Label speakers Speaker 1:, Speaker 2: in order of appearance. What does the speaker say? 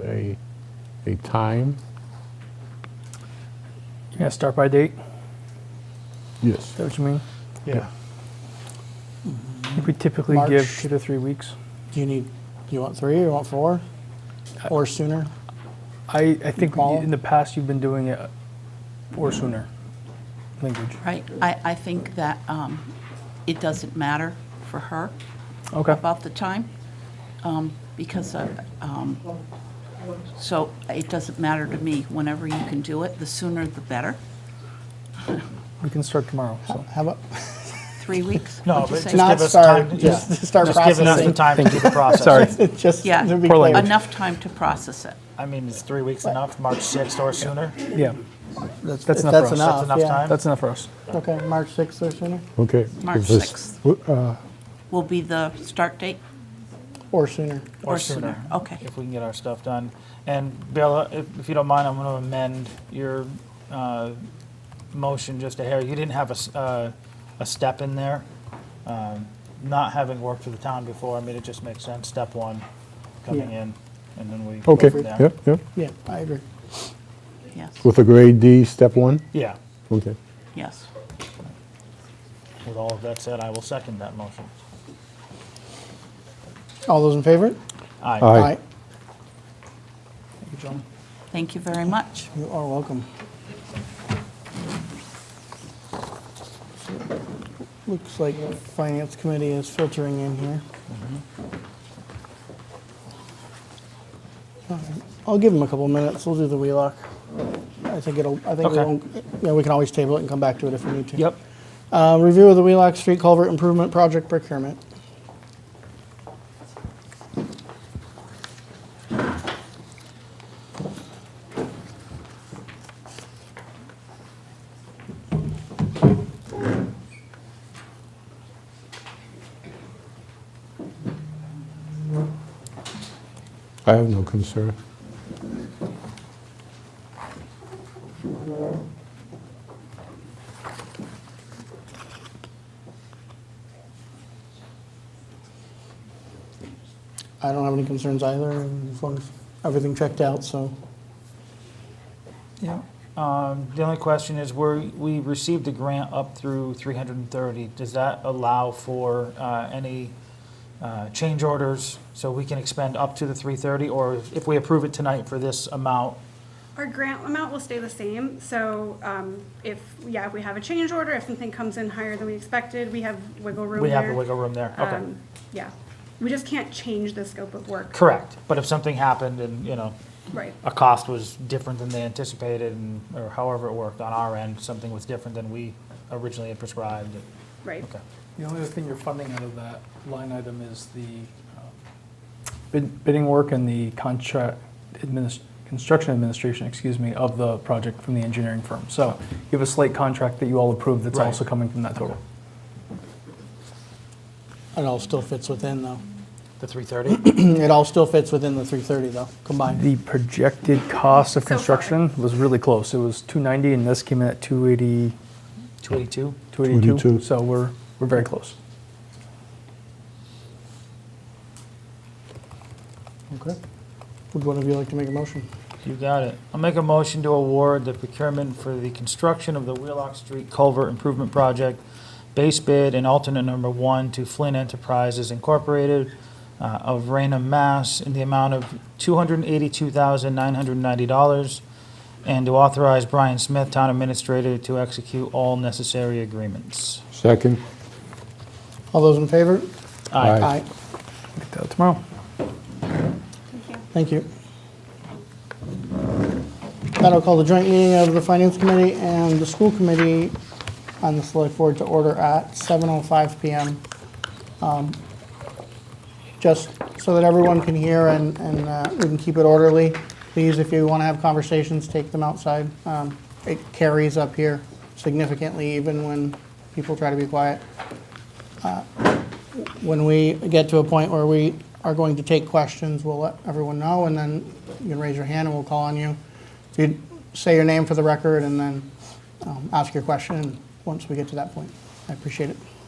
Speaker 1: a, a time?
Speaker 2: Yeah, start by date. Is
Speaker 1: Yes.
Speaker 2: that what you mean?
Speaker 3: Yeah.
Speaker 2: I think we typically
Speaker 3: March.
Speaker 2: give two to three weeks.
Speaker 3: Do you need, you want three, you want four,
Speaker 4: Uh,
Speaker 3: or sooner?
Speaker 2: I, I think
Speaker 3: Paul?
Speaker 2: in the past you've been doing it or sooner. Language.
Speaker 5: Right, I, I think that um, it doesn't matter for her
Speaker 2: Okay.
Speaker 5: about the time, um, because, of, um, so it doesn't matter to me, whenever you can do it, the sooner the better.
Speaker 2: We can start tomorrow. So
Speaker 3: How about,
Speaker 5: Three weeks?
Speaker 4: No,
Speaker 5: what'd you
Speaker 4: but
Speaker 5: say?
Speaker 4: just
Speaker 3: Not
Speaker 4: give us
Speaker 3: start,
Speaker 4: time, to-
Speaker 3: just
Speaker 4: just,
Speaker 3: start
Speaker 4: just giving us the
Speaker 3: processing.
Speaker 4: time to do the process.
Speaker 2: Sorry.
Speaker 3: just
Speaker 5: Yeah.
Speaker 3: to be
Speaker 2: Poor
Speaker 3: clear,
Speaker 2: language.
Speaker 5: Enough time to process it.
Speaker 4: I mean, is three weeks enough, March sixth or sooner?
Speaker 2: yeah,
Speaker 3: that's
Speaker 2: that's
Speaker 3: if
Speaker 2: enough for us.
Speaker 3: that's
Speaker 4: That's
Speaker 3: enough,
Speaker 4: enough
Speaker 3: yeah.
Speaker 4: time?
Speaker 2: that's enough for us.
Speaker 3: Okay, March 6th or sooner,
Speaker 1: Okay.
Speaker 5: March
Speaker 1: Is this-
Speaker 5: 6th.
Speaker 1: w- uh,
Speaker 5: Will be the start date?
Speaker 3: or sooner.
Speaker 5: Or sooner, okay.
Speaker 4: If we can get our stuff done. And Bill, if, if you don't mind, I'm gonna amend your, uh, motion just a hair. You didn't have a, s- uh, a step in there. Um, Not having worked for the town before, I mean, it just makes sense, step one, coming
Speaker 3: Yeah.
Speaker 4: in, and then we. go
Speaker 1: uh, Okay,
Speaker 4: from there.
Speaker 1: yep, yep.
Speaker 3: Yeah, I agree.
Speaker 5: Yes,
Speaker 1: With a grade D, step one?
Speaker 4: Yeah,
Speaker 1: Okay.
Speaker 5: yes.
Speaker 4: with all of that said, I will second that motion.
Speaker 3: All those in favor?
Speaker 1: Aye.
Speaker 3: Thank you, John.
Speaker 5: Thank you very much.
Speaker 3: You are welcome. Looks like the Finance Committee is filtering in here.
Speaker 4: Mm-hmm.
Speaker 3: All right. I'll give them a couple minutes, we'll do the Wheelock. I think it'll, I think we
Speaker 4: Okay.
Speaker 3: won't, yeah, we can always table it and come back to it if we need to.
Speaker 4: Yep.
Speaker 3: Uh, Review of the Wheelock Street Culvert Improvement Project procurement.
Speaker 1: I have no concern.
Speaker 3: I don't have any concerns either, as long as everything checked out, so.
Speaker 4: Yeah. Um, the only question is, we're, we received a grant up through three hundred and thirty. Does that allow for, uh, any, uh, change orders? So we can expend up to the three thirty, or if if we approve it tonight for this amount?
Speaker 6: Our grant amount will stay the same, so um, if, yeah, if we have a change order, if something comes in higher than we expected, we have wiggle room
Speaker 4: We have
Speaker 6: there.
Speaker 4: the wiggle room there, okay.
Speaker 6: Um, Yeah, we just can't change the scope of work.
Speaker 4: Correct, but if something happened and, you know,
Speaker 6: Right,
Speaker 4: a cost was different than they anticipated, and, or however it worked on our end, something was different than we originally had prescribed,
Speaker 6: right.
Speaker 4: okay.
Speaker 7: The only other thing you're funding out of that line item is the, um,
Speaker 2: Bid, bidding work and the contract adminis- construction administration, excuse me, of the project from the engineering firm. So you have a slate contract that you all approved that's
Speaker 4: Right.
Speaker 2: also coming from that total.
Speaker 3: It all still fits within, though.
Speaker 4: The three thirty?
Speaker 3: Mm, It all still fits within the 330, though, combined.
Speaker 2: The projected cost of
Speaker 6: So far.
Speaker 2: construction was really close. It was 290 and this came in at 280,
Speaker 4: Two eighty-two?
Speaker 2: 282.
Speaker 1: 282.
Speaker 2: So we're, we're very close.
Speaker 3: Okay. Would one of you like to make a motion?
Speaker 4: You got it. I'll make a motion to award the procurement for the construction of the Wheelock Street Culvert Improvement Project, base bid and alternate number one to Flynn Enterprises Incorporated uh, of Rainham, Mass, in the amount of $282,990, and to authorize Brian Smith, Town Administrator, to execute all necessary agreements.
Speaker 1: Second?
Speaker 3: All those in favor?
Speaker 1: Aye.
Speaker 2: Get that tomorrow.
Speaker 3: Thank you. That'll call the joint meeting of the Finance Committee and the School Committee on the Select Board to order at 7:05 PM. Um, Just so that everyone can hear and, and uh, we can keep it orderly, please, if you want to have conversations, take them outside. Um, It carries up here significantly even when people try to be quiet. when we get to a point where we are going to take questions, we'll let everyone know, and then you can raise your hand and we'll call on you. So you say your name for the record and then um, ask your question once we get to that point. I appreciate it.